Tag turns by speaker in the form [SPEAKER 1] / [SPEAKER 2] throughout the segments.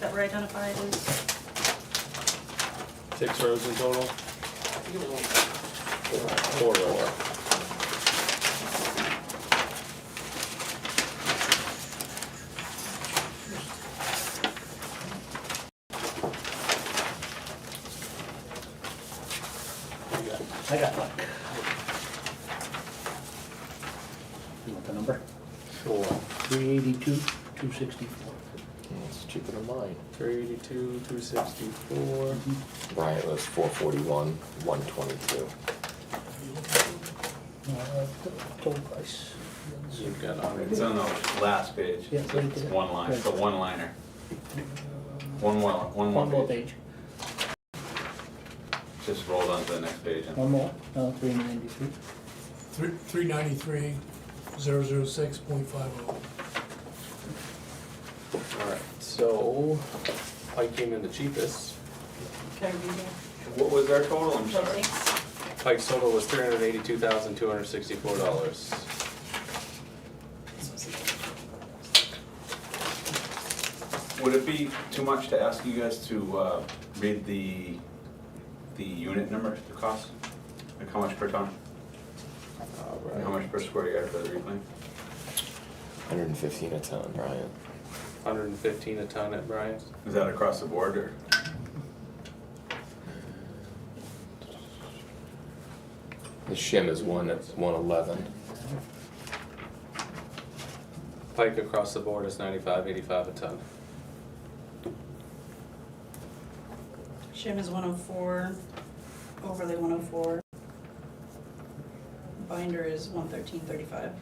[SPEAKER 1] that were identified as,
[SPEAKER 2] Six rows in total? Four rows.
[SPEAKER 3] I got luck. You want the number?
[SPEAKER 2] Four.
[SPEAKER 3] Three eighty-two, two sixty-four.
[SPEAKER 4] It's cheaper than mine.
[SPEAKER 2] Three eighty-two, two sixty-four.
[SPEAKER 4] Brian it was four forty-one, one twenty-two.
[SPEAKER 3] Total price.
[SPEAKER 2] You've got on
[SPEAKER 5] It's on the last page,
[SPEAKER 3] Yeah,
[SPEAKER 5] it's
[SPEAKER 3] put it
[SPEAKER 5] a
[SPEAKER 3] there.
[SPEAKER 5] one line, it's a one liner. One more,
[SPEAKER 3] One
[SPEAKER 5] one more
[SPEAKER 3] more
[SPEAKER 5] page,
[SPEAKER 3] page,
[SPEAKER 5] just rolled onto the next page. and-
[SPEAKER 3] one more, no, three ninety-three.
[SPEAKER 6] Three three ninety-three, zero zero six point five oh.
[SPEAKER 2] Alright, so Pike came in the cheapest.
[SPEAKER 1] can I read it?
[SPEAKER 5] What was our total, I'm sorry?
[SPEAKER 2] Pike's total was three hundred eighty-two thousand, two hundred sixty-four dollars.
[SPEAKER 5] Would it be too much to ask you guys to uh, read the, the unit number, the cost? Like how much per ton, and how
[SPEAKER 2] Alright,
[SPEAKER 5] much per square yard for the reclaim?
[SPEAKER 4] Hundred and fifteen a ton, Brian.
[SPEAKER 2] hundred and fifteen a ton at Bryant's.
[SPEAKER 5] Is that across the board, or?
[SPEAKER 4] The shim is one at one eleven.
[SPEAKER 2] Pike across the board is ninety-five, eighty-five a ton.
[SPEAKER 1] Shim is one oh four, overlay one oh four. Binder is one thirteen thirty-five.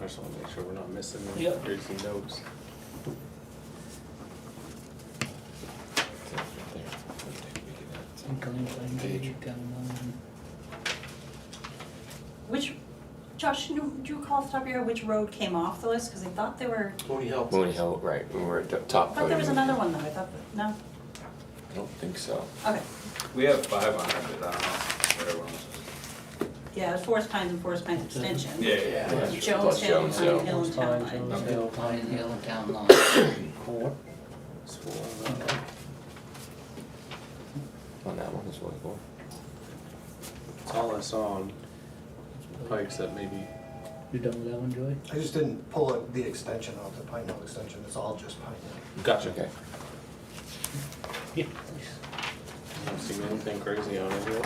[SPEAKER 2] I just wanna make sure we're not missing any
[SPEAKER 3] Yep.
[SPEAKER 2] greasy notes.
[SPEAKER 4] Page.
[SPEAKER 1] Which, Josh, do do you recall off the top of your head which road came off the list? Because I thought there were,
[SPEAKER 2] Tony help.
[SPEAKER 4] Mooney Hill, right, we were at the top.
[SPEAKER 1] I thought there was
[SPEAKER 4] podium.
[SPEAKER 1] another one though, I thought, that- no?
[SPEAKER 4] I don't think so.
[SPEAKER 1] Okay,
[SPEAKER 5] We have five on it, but I don't know what everyone else is.
[SPEAKER 1] yeah, it's Forest Pines and Forest Pines Extension.
[SPEAKER 5] Yeah, yeah, yeah.
[SPEAKER 4] Yeah.
[SPEAKER 1] Jones
[SPEAKER 4] Plus
[SPEAKER 1] Hill,
[SPEAKER 4] Jones
[SPEAKER 1] Pine
[SPEAKER 4] Hill.
[SPEAKER 1] Hill and Town Line.
[SPEAKER 3] Jones
[SPEAKER 5] Okay.
[SPEAKER 3] Hill, Pine Hill, Town Line. Four.
[SPEAKER 2] uh,
[SPEAKER 4] On that one as well. cool.
[SPEAKER 2] It's all I saw on Pike's that maybe
[SPEAKER 3] You done with that one, Joey?
[SPEAKER 7] I just didn't pull it- the extension out, the Pine Hill extension, it's all just Pine Hill.
[SPEAKER 2] Gotcha.
[SPEAKER 4] Okay.
[SPEAKER 3] Yeah.
[SPEAKER 2] Don't see anything crazy on it here.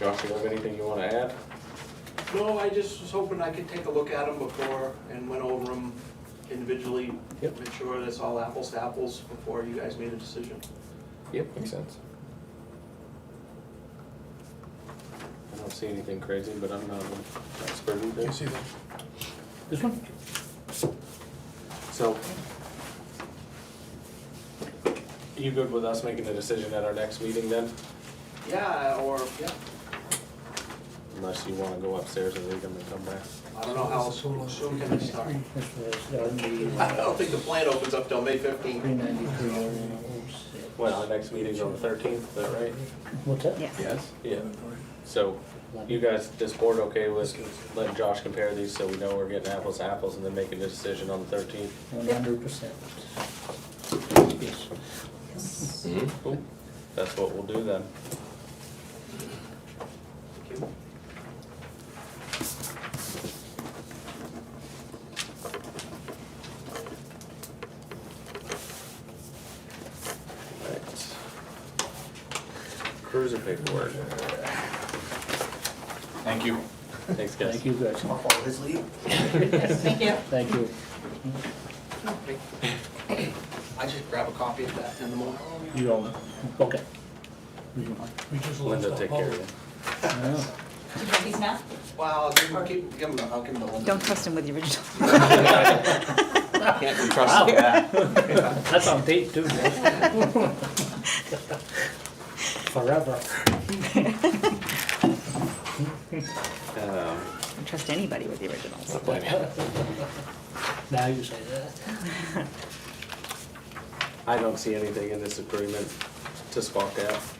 [SPEAKER 2] Josh, you have anything you wanna add?
[SPEAKER 8] No, I just was hoping I could take a look at them before and went over them individually,
[SPEAKER 2] Yep.
[SPEAKER 8] make sure that's all apples to apples before you guys made a decision.
[SPEAKER 2] Yep.
[SPEAKER 4] Makes sense.
[SPEAKER 2] I don't see anything crazy, but I'm not an expert either.
[SPEAKER 6] You see that?
[SPEAKER 3] This one?
[SPEAKER 2] So. You good with us making a decision at our next meeting then?
[SPEAKER 8] Yeah, or, yeah,
[SPEAKER 2] Unless you wanna go upstairs and read them and come back.
[SPEAKER 8] I don't know how soon soon can we start.
[SPEAKER 3] This was, that would be
[SPEAKER 8] I don't think the plant opens up till May
[SPEAKER 3] three
[SPEAKER 8] fifteenth.
[SPEAKER 3] ninety-three, oh six.
[SPEAKER 2] Well, our next meeting's on the thirteenth, is that right?
[SPEAKER 3] What's that?
[SPEAKER 2] Yes. Yeah, so you guys, this board okay with letting Josh compare these so we know we're getting apples to apples and then making a decision on the thirteenth?
[SPEAKER 3] One hundred percent. Yes.
[SPEAKER 1] Yes.
[SPEAKER 4] Mm-hmm.
[SPEAKER 2] Cool. That's what we'll do then. Alright. Cruiser paperwork.
[SPEAKER 5] Thank you.
[SPEAKER 2] Thanks, guys.
[SPEAKER 3] Thank you, guys.
[SPEAKER 7] I'll follow his lead.
[SPEAKER 1] Thank you.
[SPEAKER 3] Thank you.
[SPEAKER 8] I just grab a copy of that in the morning.
[SPEAKER 3] You
[SPEAKER 1] um,
[SPEAKER 3] all, okay. You can-
[SPEAKER 6] We just lost
[SPEAKER 2] Linda,
[SPEAKER 6] that
[SPEAKER 2] take
[SPEAKER 6] vote.
[SPEAKER 2] care of it.
[SPEAKER 3] yeah.
[SPEAKER 1] Did you get these now?
[SPEAKER 8] Well, I'll give him, I'll give him, the- I'll give him the one.
[SPEAKER 9] Don't trust him with the original.
[SPEAKER 4] Can't be trusted.
[SPEAKER 3] That's on tape too. Joe. Forever.
[SPEAKER 2] Um,
[SPEAKER 9] Don't trust anybody with the originals.
[SPEAKER 3] Now you say that.
[SPEAKER 2] I don't see anything in this agreement to spark out.